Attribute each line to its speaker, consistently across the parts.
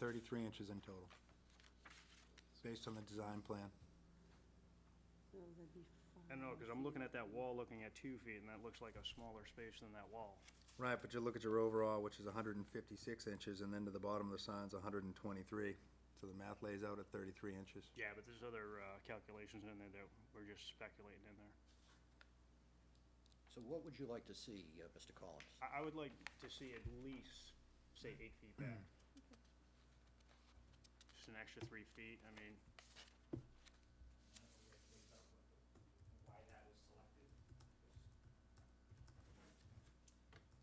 Speaker 1: 33 inches in total, based on the design plan.
Speaker 2: So that'd be
Speaker 3: I don't know, because I'm looking at that wall, looking at two feet, and that looks like a smaller space than that wall.
Speaker 1: Right, but you look at your overall, which is 156 inches, and then to the bottom of the sign's 123. So the math lays out at 33 inches.
Speaker 3: Yeah, but there's other uh, calculations in there that we're just speculating in there.
Speaker 4: So what would you like to see, uh, Mr. Collins?
Speaker 3: I, I would like to see at least, say, eight feet back.
Speaker 2: Mm.
Speaker 3: Just an extra three feet, I mean,
Speaker 5: why that was selected.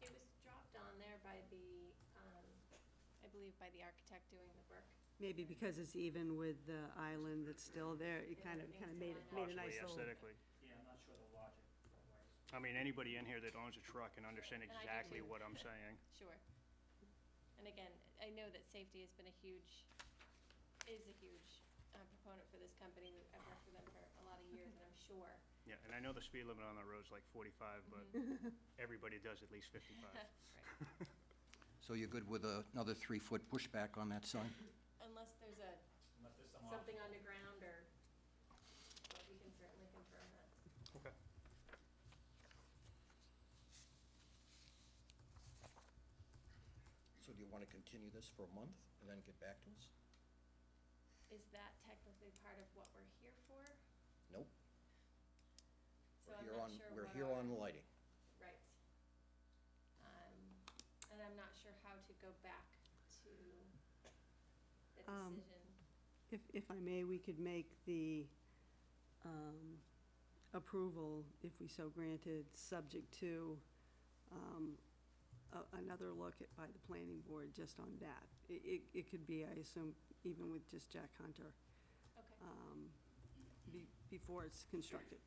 Speaker 6: It was dropped on there by the, um, I believe by the architect doing the work.
Speaker 2: Maybe because it's even with the island that's still there, it kind of,
Speaker 6: Yeah,
Speaker 2: kind of
Speaker 6: makes
Speaker 2: made
Speaker 6: it
Speaker 2: it, made a
Speaker 3: possibly
Speaker 2: nice little.
Speaker 3: aesthetically.
Speaker 5: Yeah, I'm not sure the logic. of why it's-
Speaker 3: I mean, anybody in here that owns a truck can understand
Speaker 6: And I do
Speaker 3: exactly
Speaker 6: too.
Speaker 3: what I'm saying.
Speaker 6: Sure. And again, I know that safety has been a huge, is a huge uh, proponent for this company. I've worked with them for a lot of years, and I'm sure.
Speaker 3: Yeah, and I know the speed limit on that road's like forty-five, but
Speaker 6: Mhm.
Speaker 2: Mm-hmm.
Speaker 3: everybody does at least fifty-five.
Speaker 6: Right.
Speaker 4: So you're good with a- another three-foot pushback on that sign?
Speaker 6: Unless there's a,
Speaker 5: Unless there's some.
Speaker 6: something underground or, but we can certainly confirm that.
Speaker 3: Okay.
Speaker 4: So do you want to continue this for a month and then get back to us?
Speaker 6: Is that technically part of what we're here for?
Speaker 4: Nope.
Speaker 6: So
Speaker 4: We're
Speaker 6: I'm
Speaker 4: here
Speaker 6: not
Speaker 4: on-
Speaker 6: sure
Speaker 4: We're
Speaker 6: what
Speaker 4: here
Speaker 6: our-
Speaker 4: on lighting.
Speaker 6: Right. Um, and I'm not sure how to go back to the
Speaker 2: Um,
Speaker 6: decision.
Speaker 2: If, if I may, we could make the um, approval, if we so granted, subject to um, a- another look at, by the planning board just on that. It, it, it could be, I assume, even with just Jack Hunter,
Speaker 6: Okay,
Speaker 2: um, be, before it's constructed.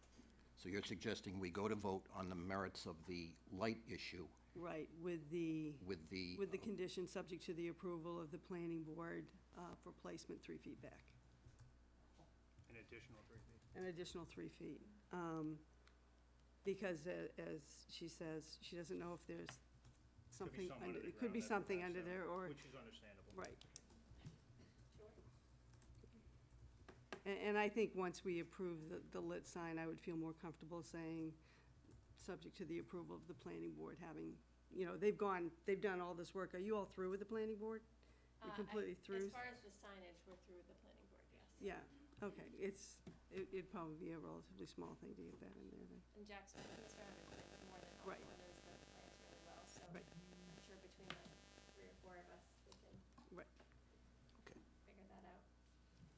Speaker 4: So you're suggesting we go to vote on the merits of the light issue
Speaker 2: Right, with the,
Speaker 4: with the...
Speaker 2: with the condition subject to the approval of the planning board uh, for placement three feet back,
Speaker 3: An additional three feet.
Speaker 2: an additional three feet. Um, Because a- as she says, she doesn't know if there's something,
Speaker 3: something
Speaker 2: under-
Speaker 3: under the
Speaker 2: it could be
Speaker 3: ground that
Speaker 2: something
Speaker 3: prevents
Speaker 2: under
Speaker 3: that,
Speaker 2: there, or,
Speaker 3: Which is understandable.
Speaker 2: right.
Speaker 6: sure.
Speaker 2: And, and I think once we approve the, the lit sign, I would feel more comfortable saying, subject to the approval of the planning board, having, you know, they've gone, they've done all this work. Are you all through with the planning board?
Speaker 6: Uh,
Speaker 2: You're
Speaker 6: I-
Speaker 2: completely through?
Speaker 6: As far as the signage, we're through with the planning board, yes.
Speaker 2: Yeah, okay, it's, it- it'd probably be a relatively small thing to get that in there then.
Speaker 6: And Jack's been concerned with more than all
Speaker 2: Right.
Speaker 6: corners of the plans really well, so
Speaker 2: Right.
Speaker 6: I'm sure between the three or four of us, we can
Speaker 2: Right,
Speaker 4: Okay.
Speaker 6: figure that out.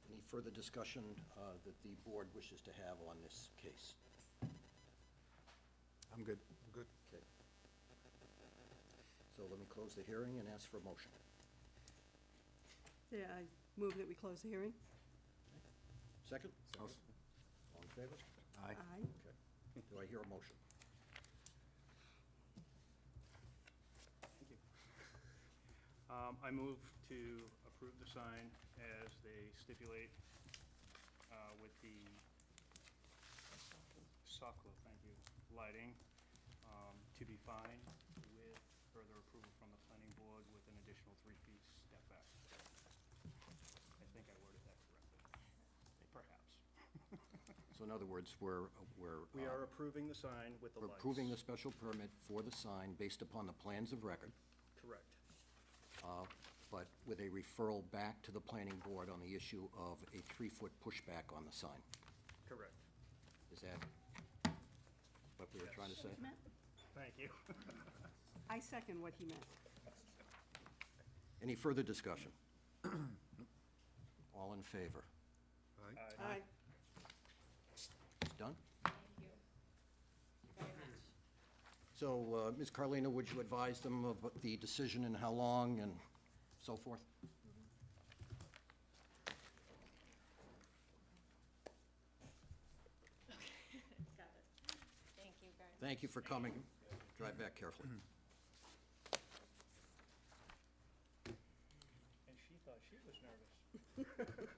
Speaker 4: Any further discussion uh, that the board wishes to have on this case?
Speaker 1: I'm good. Good.
Speaker 4: Okay. So let me close the hearing and ask for a motion.
Speaker 2: yeah, I move that we close the hearing.
Speaker 4: Second?
Speaker 1: I'll
Speaker 4: All
Speaker 1: s-
Speaker 4: in favor?
Speaker 1: Aye.
Speaker 4: Okay. Do I hear a motion?
Speaker 3: Um, I move to approve the sign as they stipulate, uh, with the Soklo, thank you, lighting, um, to be fine with further approval from the planning board with an additional three feet step back. I think I worded that correctly, perhaps.
Speaker 4: So in other words, we're, we're...
Speaker 3: We
Speaker 4: uh,
Speaker 3: are approving the sign with the
Speaker 4: We're
Speaker 3: lights.
Speaker 4: approving the special permit for the sign based upon the plans of record,
Speaker 3: Correct.
Speaker 4: uh, but with a referral back to the planning board on the issue of a three-foot pushback on the sign.
Speaker 3: Correct.
Speaker 4: Is that what we were trying to say?
Speaker 3: Thank you.
Speaker 2: I second what he meant.
Speaker 4: Any further discussion? All in favor?
Speaker 3: Uh,
Speaker 1: Aye.
Speaker 2: Aye.
Speaker 4: It's done?
Speaker 6: Thank you very much.
Speaker 4: So, uh, Ms. Carlino, would you advise them of the decision and how long and so forth?
Speaker 6: Got it. Thank you very much.
Speaker 4: Thank you for coming. Drive back carefully.
Speaker 3: And she thought she was nervous.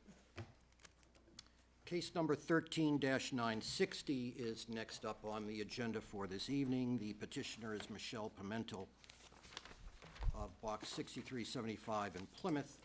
Speaker 4: Case number 13-960 is next up on the agenda for this evening. The petitioner is Michelle Pimentel of Box 6375 in Plymouth.